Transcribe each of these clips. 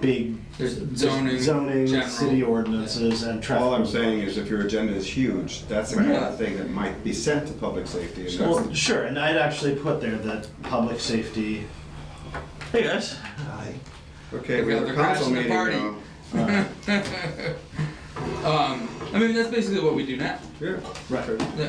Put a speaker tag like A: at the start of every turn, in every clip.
A: big
B: There's zoning,
A: zoning,
B: general.
A: city ordinances, and traffic.
C: All I'm saying is if your agenda is huge, that's the kind
B: Right.
C: of thing that might be sent to public safety. and
A: Well,
C: that's-
A: sure, and I'd actually put there that public safety. Hey guys.
C: Okay,
B: We
C: we
B: got
C: have
B: the
C: a
B: crash
C: council
B: and the
C: meeting
B: party.
C: now.
B: Um, I mean, that's basically what we do now.
C: Yeah.
A: Right.
B: Yeah.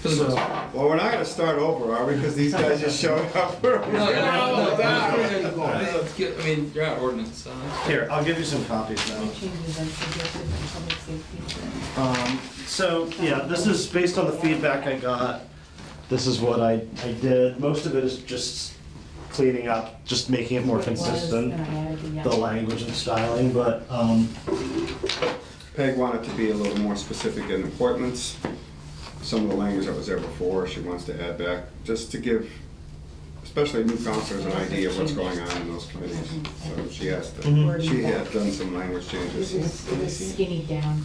B: For the most part.
A: So,
C: Well, we're not gonna start over, are we? Because these guys just showed up. We're
B: No, no,
C: almost-
B: no, no,
A: no,
B: no, no, Let's get, I mean, you're out ordinance, so.
A: here, I'll give you some copies now.
D: changes as suggested in public safety.
A: Um, so, yeah, this is based on the feedback I got. This is what I, I did. Most of it is just cleaning up, just making it more
D: It was,
A: consistent,
D: And I added the,
A: the language and styling, but, um,
C: Peg wanted to be a little more specific in appointments. Some of the language that was there before, she wants to add back, just to give, especially new counselors, an idea of what's going on in those committees. So she asked, to- she had done some language
D: This
C: changes.
D: is, it was skinny down.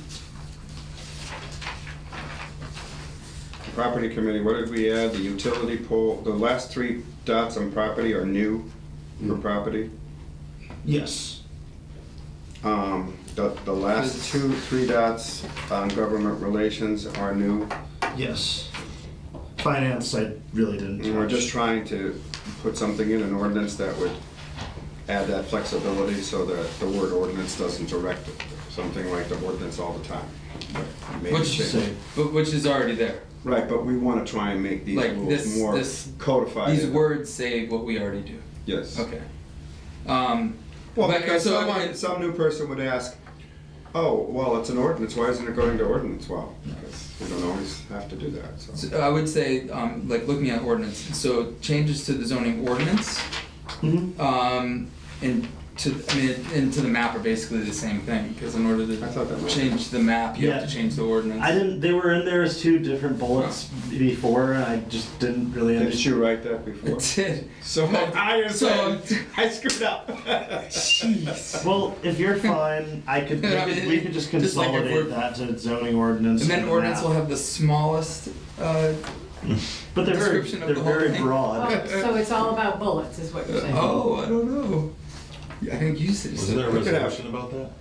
C: Property committee, what did we add? The utility pole, the last three dots on property are new
B: Hmm.
C: for property.
A: yes.
C: Um, the, the last two, three dots on government relations are new.
A: Yes. Finance, I really didn't
C: And we're just
A: touch.
C: trying to put something in an ordinance that would add that flexibility so that the word ordinance doesn't direct something like the ordinance all the time. Maybe
B: Which
C: change-
A: Same.
B: But which is already there.
C: Right, but we wanna try and make these
B: Like
C: rules
B: this-
C: more
B: this-
C: codified.
B: These words say what we already do.
C: Yes.
B: Okay. Um,
C: Well,
B: But-
C: because
B: so-
C: someone, some new person would ask, oh, well, it's an ordinance, why isn't it going to ordinance? Well, because we don't always have to do that, so.
B: so I would say, um, like looking at ordinance, so changes to the zoning ordinance,
A: Mhm.
B: um, and to, I mean, and to the map are basically the same thing, because in order
C: I thought that
B: to
C: was-
B: change the map, you have to
A: Yeah.
B: change the ordinance.
A: I didn't, they were in there as two different bullets before, and I just didn't really understand.
C: Didn't you write that before?
B: It did.
C: So I,
B: So-
C: I screwed up. Jeez.
A: Well, if you're fine, I could, we could, we could just
B: Just like if
A: consolidate
B: we're-
A: that to zoning ordinance.
B: And then ordinance
A: map.
B: will have the smallest, uh,
A: But they're very,
B: description of
A: they're
B: the whole
A: very
B: thing.
A: broad.
D: Oh, so it's all about bullets, is what you're saying?
B: oh, I don't know. I think you said.
E: Wasn't there a
C: Look it up.
E: resolution about that?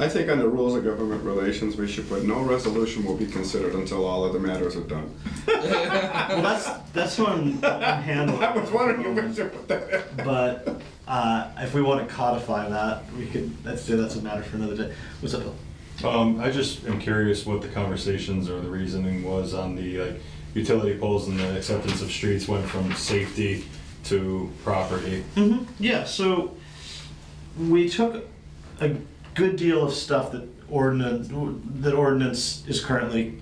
C: I think under rules of government relations, we should put no resolution will be considered until all other matters are done.
A: Well, that's, that's what I'm I'm handling.
C: I was wondering if we should put that in.
A: But, uh, if we wanna codify that, we could, let's do, that's a matter for another day. What's up, Bill?
E: Um, I just am curious what the conversations or the reasoning was on the, like, utility poles and the acceptance of streets went from safety to property.
A: hmm Yeah, so we took a good deal of stuff that ordinance that ordinance is currently.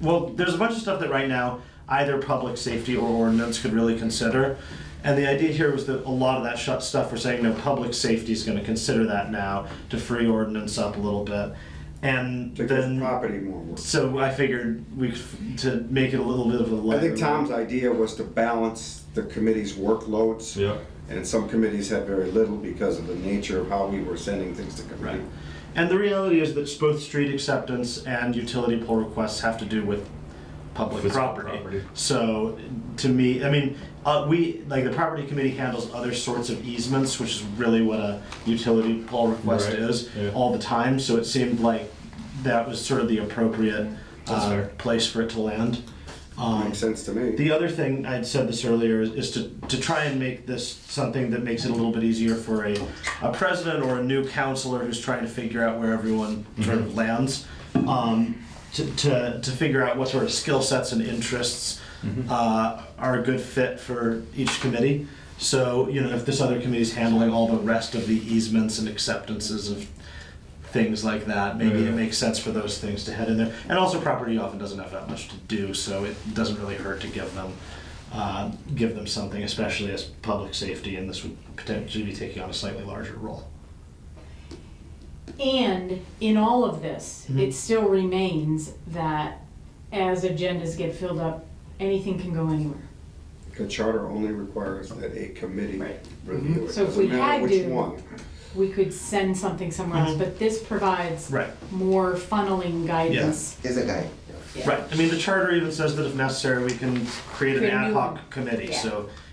A: Well, there's a bunch of stuff that right now either public safety or ordinance could really consider, and the idea here was that a lot of that shut stuff we're saying no public safety is going to consider that now to free ordinance up a little bit, and
C: Take
A: then
C: property more work.
A: So I figured we could f- to make it a little bit of a.
C: I
A: lighter
C: think Tom's
A: one.
C: idea was to balance the committee's workloads.
E: Yeah.
C: And some committees had very little because of the nature of how we were sending things to committee.
A: Right. And the reality is that both street acceptance and utility pole requests have to do with public
E: Physical
A: property.
E: property.
A: So, to me, I mean, uh, we, like, the property committee handles other sorts of easements, which is really what a utility pole request
E: Right,
A: is
E: yeah.
A: all the time, so it seemed like that was sort of the appropriate
E: That's
A: uh,
E: fair.
A: place for it to land. Um,
C: Makes sense to me.
A: the other thing I'd said this earlier is, is to, to try and make this something that makes it a little bit easier for a, a president or a new counselor who's trying to figure out where everyone sort of lands um, to, to, to figure out what sort of skill sets and interests uh, are a good fit for each committee. So, you know, if this other committee is handling all the rest of the easements and acceptances of things like that. Maybe
E: Yeah.
A: it makes sense for those things to head in there. And also, property often doesn't have that much to do, so it doesn't really hurt to give them uh, give them something, especially as public safety. And this would potentially be taking on a slightly larger role.
D: And in all of this,
A: Mhm.
D: it still remains that as agendas get filled up, anything can go anywhere.
C: The charter only requires that a committee
D: Right.
C: review it.
D: So if
C: Doesn't
D: we
C: matter
D: had
C: which
D: to-
C: one.
D: We could send something somewhere else,
A: Mhm.
D: but this provides
A: Right.
D: more funneling guidance.
F: is a guy.
D: Yeah.
A: Right. I mean, the charter even says that if necessary, we can create an
D: Create a
A: ad
D: new
A: hoc
D: one.
A: committee.
D: Yeah.
A: So